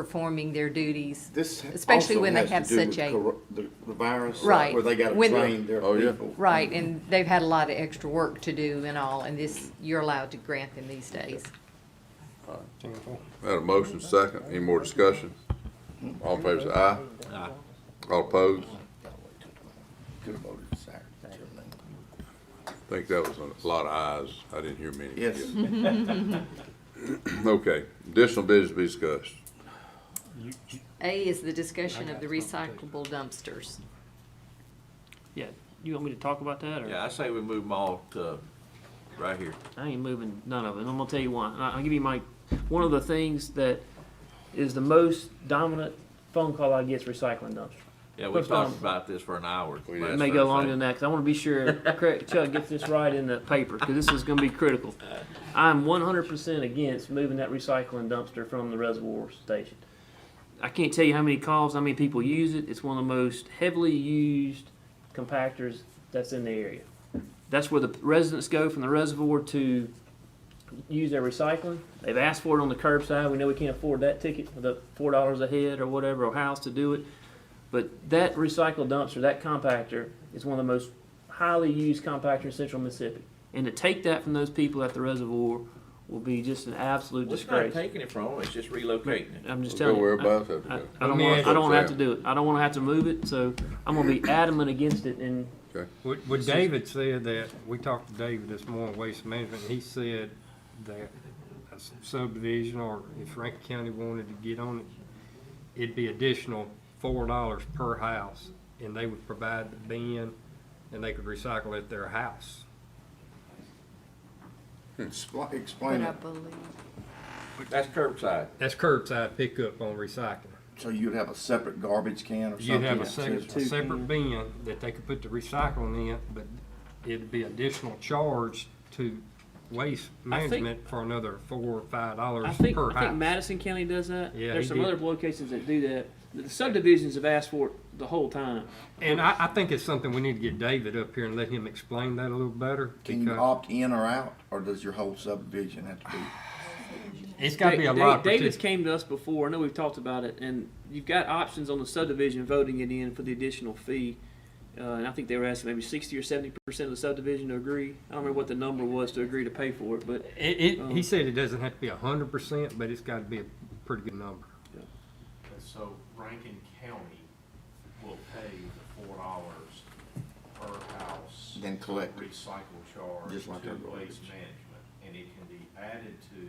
performing their duties. This Especially also when they have has to do with such a- cor- The the virus. uh, Right. Where they gotta When- train their Oh, yeah. people. Right, and they've had a lot of extra work to do and all, and this, you're allowed to grant them these days. Had a motion second, any more discussion? All in favor say aye. Aye. All opposed? Could've voted Saturday. I think that was a lot of ayes, I didn't hear many. Yes. Okay, additional business to be discussed. You- you- A is the discussion of the recyclable dumpsters. Yeah, you want me to talk about that or? Yeah, I say we move them all to right here. I ain't moving none of it. And I'm gonna tell you one. I- I'll give you my one of the things that is the most dominant phone call I get is recycling dumpster. Yeah, we Put talked some- about this for an hour. We last did. It may go Thursday. longer than that because I want to be sure Cra- Chuck gets this right in the paper because this is going to be critical. I'm 100% against moving that recycling dumpster from the reservoir station. I can't tell you how many calls, how many people use it. It's one of the most heavily used compactors that's in the area. That's where the residents go from the reservoir to use their recycling. They've asked for it on the curbside. We know we can't afford that ticket for the four dollars a head or whatever, or house to do it. But that recycle dumpster, that compactor, is one of the most highly used compactor in central Mississippi. And to take that from those people at the reservoir will be just an absolute It's not disgrace. taking it from them, it's just relocating it. I'm just Go telling where you. I- above that I, we go. I don't me want, ask I you don't wanna have to something. do it. I don't wanna have to move it, so I'm gonna be adamant against it and What, what David said that, we talked to David this morning, Waste Management, he said that a subdivision or if Rankin County wanted to get on it, it'd be additional four dollars per house and they would provide the bin and they could recycle at their house. Expl- But Explain I it. believe, That's curbside. That's curbside pickup on recycling. uh, So you'd have a separate garbage can or something? You'd have a that separate, says a two separate bin that they could put the recycling in, but it'd be additional charge to waste I think- management for another four or five I dollars think per I think house. Madison County does that. Yeah, There's he some did. other locations that do that. The subdivisions have asked for it the whole time. And I, I think it's something we need to get David up here and let him explain that a little better. Can you because opt in or out, or does your whole subdivision have to be? It's gotta be a Da- lot. of Da- David's partic- came to us before. I know we've talked about it, and you've got options on the subdivision voting it in for the additional fee. Uh, and I think they were asking maybe sixty or seventy percent of the subdivision to agree. I don't remember what the number was to agree to pay for it, but It, it, he said it doesn't have to be a hundred percent, but it's gotta be a pretty good number. And so Rankin County will pay the four dollars per house. Then collect it. Recycle charge Just like to our garbage. waste management, and it can be added to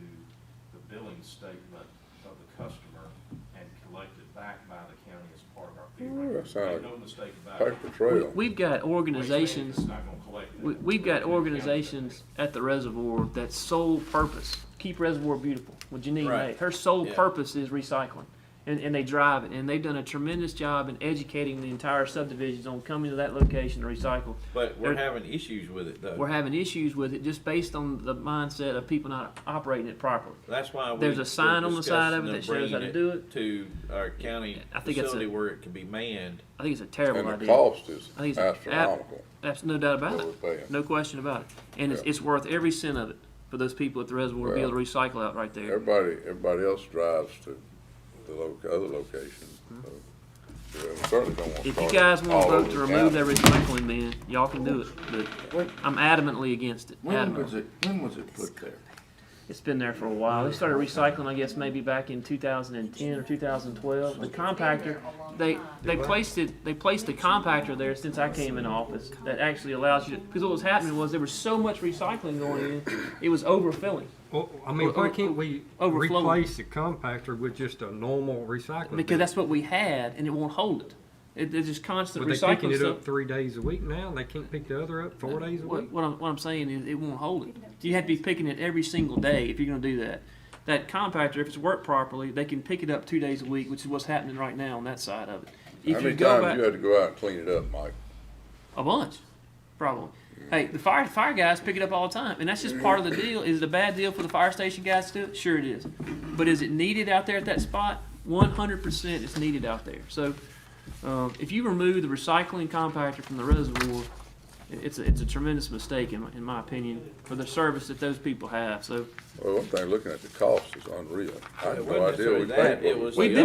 the billing statement of the customer and collected back by the county as part of our fee. Ooh, that rate. sound Make like no mistake about it. Paper trail. we, have got Waste organizations. management's not gonna collect that. We, we've got Rankin County does. organizations at the reservoir that sole purpose keep reservoir beautiful. With Janine Right. May, her sole Yeah. purpose is recycling, and, and they drive it. And they've done a tremendous job in educating the entire subdivisions on coming to that location to recycle. But we're It- having issues with it We're though. having issues with it just based on the mindset of people not operating it properly. That's why we. There's a we're sign on the side of it that discussing shows how them to bringing do it. To our county I think it's a- facility where it can be manned. I think it's a terrible And the idea. cost is I think it's ab- astronomical. That's no doubt about what it. we're paying. No question about it. And it's, it's worth every cent of it for those people at the reservoir to be able to recycle out right there. Everybody, everybody else drives to the lo- other location. so we Certainly don't want. Mm-hmm. If you cars guys want to all vote over to the remove county. that recycling bin, y'all can do it, but When- I'm adamantly against it. When was Adamantly. it, when was it put there? It's been there for a while. They started recycling, I guess, maybe back in 2010 or 2012. The compactor, they they placed it. They placed the compactor there since I came in office. That actually allows you to. Because what was happening was there was so much recycling going in, it was overfilling. Well, Oh, I mean, Or- why or- can't we overflowing. replace the compactor with just a normal recycling? Because bin? that's what we had, and it won't hold it. it it's just constant Were they picking recycling it stuff. up three days a week now? They can't pick the other up four days a What- week? What I'm, what I'm saying is, it won't hold it. You have to be picking it every single day if you're gonna do that. That compactor, if it's worked properly, they can pick it up two days a week, which is what's happening right now on that side of it. How If you many go back times you had to go out and clean it up, Mike? a bunch, probably. Hey, the fire, fire guys pick it up all the time, and that's just part of the deal. Is it a bad deal for the fire station guys to do it? Sure it is. But is it needed out there at that spot? One hundred percent it's needed out there. So, um, if you remove the recycling compactor from the reservoir, it- it's, a- it's a tremendous mistake in my, in my opinion, for the service that those people have, so. Well, one thing, looking at the cost is unreal. I It have wasn't no idea we necessarily paid what that, it we was We've the been